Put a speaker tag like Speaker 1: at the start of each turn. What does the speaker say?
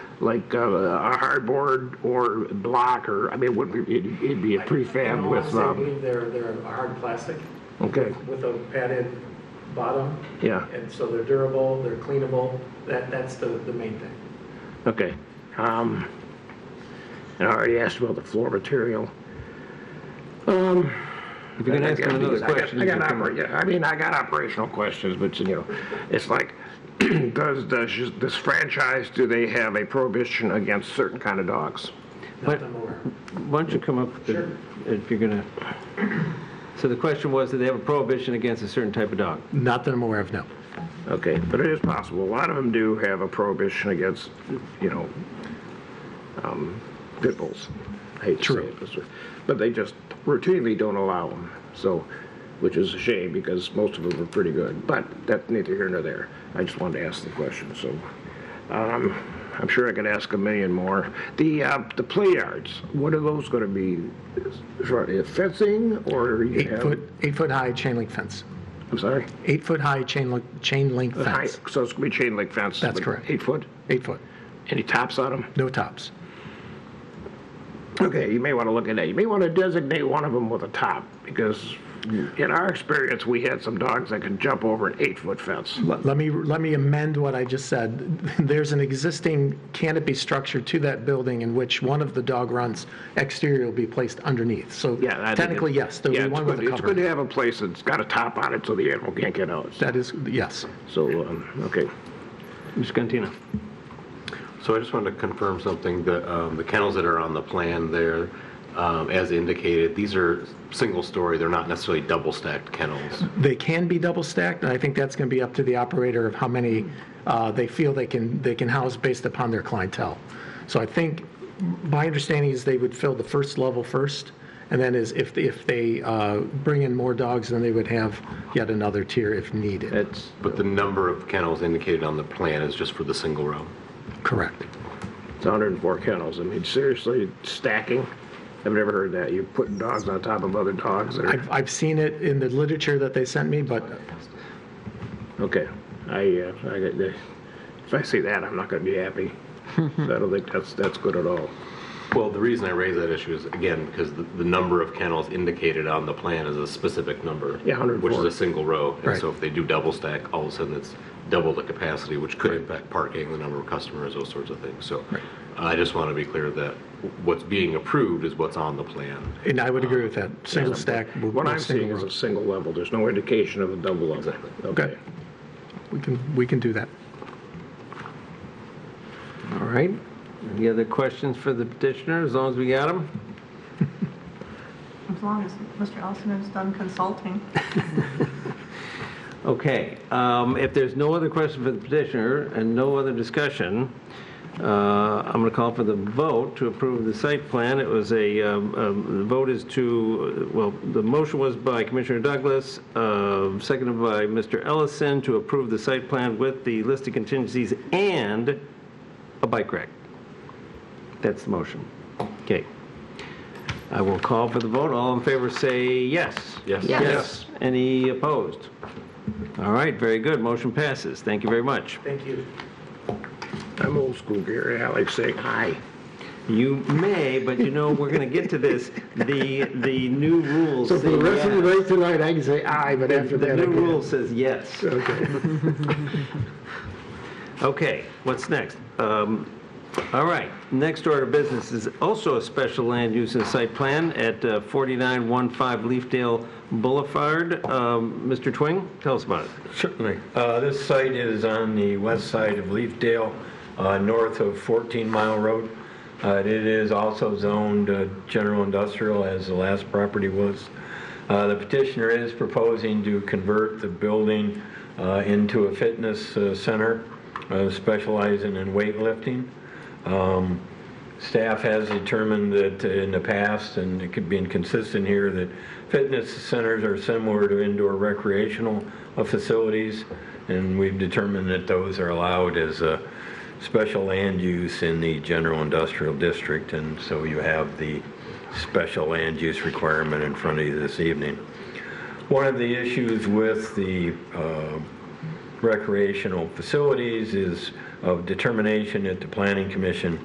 Speaker 1: like uh, a hardboard or block or, I mean, would, it'd it'd be a prefab with,
Speaker 2: I
Speaker 1: um,
Speaker 2: believe they're, they're a hard plastic
Speaker 1: okay,
Speaker 2: with a padded bottom.
Speaker 1: Yeah.
Speaker 2: And so they're durable, they're cleanable, that, that's the, the main thing.
Speaker 1: okay. Um, and I already asked about the floor material.
Speaker 3: If you're gonna ask him another question.
Speaker 1: I
Speaker 3: you
Speaker 1: got, I
Speaker 3: can
Speaker 1: got,
Speaker 3: come-
Speaker 1: oper- yeah, I mean, I got operational questions, but you know, it's like, does, does this franchise, do they have a prohibition against certain kind of dogs?
Speaker 3: But-
Speaker 2: Nothing more.
Speaker 3: Why don't you come up, with the-
Speaker 2: Sure.
Speaker 3: if you're gonna, so the question was, do they have a prohibition against a certain type of dog?
Speaker 2: Not that I'm aware of, no.
Speaker 1: Okay, but it is possible. A lot of them do have a prohibition against, you know, um, pit bulls. I hate to say
Speaker 2: True.
Speaker 1: it this way, but they just routinely don't allow them. So, which is a shame because most of them are pretty good. But that's neither here nor there. I just wanted to ask the question. So, um, I'm sure I could ask a million more. The uh, the play yards. What are those going to be? Is- is Fencing or you
Speaker 4: Eight
Speaker 1: have-
Speaker 4: foot, eight foot high chain link fence.
Speaker 1: I'm sorry.
Speaker 4: Eight foot high chain link, chain link
Speaker 1: High-
Speaker 4: fence.
Speaker 1: So it's going to be chain link fence.
Speaker 4: That's
Speaker 1: but
Speaker 4: correct.
Speaker 1: Eight foot.
Speaker 4: Eight foot,
Speaker 1: Any tops on them?
Speaker 4: no tops.
Speaker 1: Okay, you may want to look at that. You may want to designate one of them with a top because in our experience, we had some dogs that could jump over an eight-foot fence.
Speaker 4: Let let me, let me amend what I just said. There's an existing canopy structure to that building in which one of the dog runs exterior will be placed underneath. So
Speaker 1: Yeah. I think it-
Speaker 4: technically, yes, there'll
Speaker 1: Yeah,
Speaker 4: be
Speaker 1: it's
Speaker 4: one with
Speaker 1: good-
Speaker 4: a
Speaker 1: It's good
Speaker 4: cover.
Speaker 1: to have a place that's got a top on it so the animal can't get out.
Speaker 4: That is, yes.
Speaker 1: So, um, okay.
Speaker 3: Mr. Cantina?
Speaker 5: So I just wanted to confirm something, the, um, the kennels that are on the plan there, um, as indicated, these are single-story, they're not necessarily double-stacked kennels.
Speaker 4: They can be double stacked, and I think that's going to be up to the operator of how many uh, they feel they can, they can house based upon their clientele. So I think, my understanding is they would fill the first level first, and then is if, if they uh, bring in more dogs, then they would have yet another tier if needed.
Speaker 1: That's,
Speaker 5: But the number of kennels indicated on the plan is just for the single row.
Speaker 4: Correct.
Speaker 1: it's 104 kennels. I mean, seriously, stacking? I've never heard that. You're putting dogs on top of other dogs that are,
Speaker 4: I've, I've seen it in the literature that they sent me, but
Speaker 1: okay. I, uh, I, get the- if I see that, I'm not going to be happy. So I don't think that's, that's good at all.
Speaker 5: Well, the reason I raise that issue is, again, because the, the number of kennels indicated on the plan is a specific number.
Speaker 1: Yeah, 104.
Speaker 5: Which is a single row. And
Speaker 4: Right.
Speaker 5: so if they do double-stack, all of a sudden it's double the capacity, which could impact parking, the number of customers, those sorts of things. So I just want to be clear that what's being approved is what's on the plan.
Speaker 4: and I would agree with that. Single stack. we'll-
Speaker 1: What
Speaker 4: we'll
Speaker 1: I'm
Speaker 4: single
Speaker 1: seeing is
Speaker 4: row.
Speaker 1: a single level. There's no indication of a double level. Exactly. Okay.
Speaker 4: Okay. We can, we can do that.
Speaker 3: All right. Any other questions for the petitioner, as long as we got them?
Speaker 6: As long as Mr. Elsinger's done consulting.
Speaker 3: Okay, um, if there's no other question for the petitioner and no other discussion, uh, I'm going to call for the vote to approve the site plan. It was a, um, um, the vote is to, well, the motion was by Commissioner Douglas, uh, seconded by Mr. Ellison to approve the site plan with the listed contingencies and a bike rack. Oh, That's the motion. Okay. I will call for the vote. All in favor, say yes.
Speaker 5: Yes. Yes.
Speaker 3: Yes. Any opposed? All right, very good. Motion passes. Thank you very much.
Speaker 2: Thank you.
Speaker 1: I'm old school, Gary. I like saying aye.
Speaker 3: You may, but you know, we're going to get to this, the, the new rules. uh,
Speaker 1: So for the
Speaker 3: say
Speaker 1: rest of the
Speaker 3: yes.
Speaker 1: night tonight, I can say aye, but after
Speaker 3: The
Speaker 1: that, I
Speaker 3: new
Speaker 1: can't.
Speaker 3: rule says yes. Okay, what's next? Um, All right, next order of business is also a special land use and site plan at uh, 4915 Leafdale Boulevard. Um, Mr. Twing, tell us about it.
Speaker 7: Certainly. Uh, This site is on the west side of Leafdale, uh, north of 14 Mile Road. Uh, It is also zoned uh, general industrial, as the last property was. Uh, The petitioner is proposing to convert the building uh, into a fitness uh, center uh, specializing in weightlifting. Um, Staff has determined that uh, in the past, and it could be inconsistent here, that fitness centers are similar to indoor recreational uh, facilities, and we've determined that those are allowed as a special land use in the general industrial district, and so you have the special land use requirement in front of you this evening. One of the issues with the uh, recreational facilities is of determination at the planning commission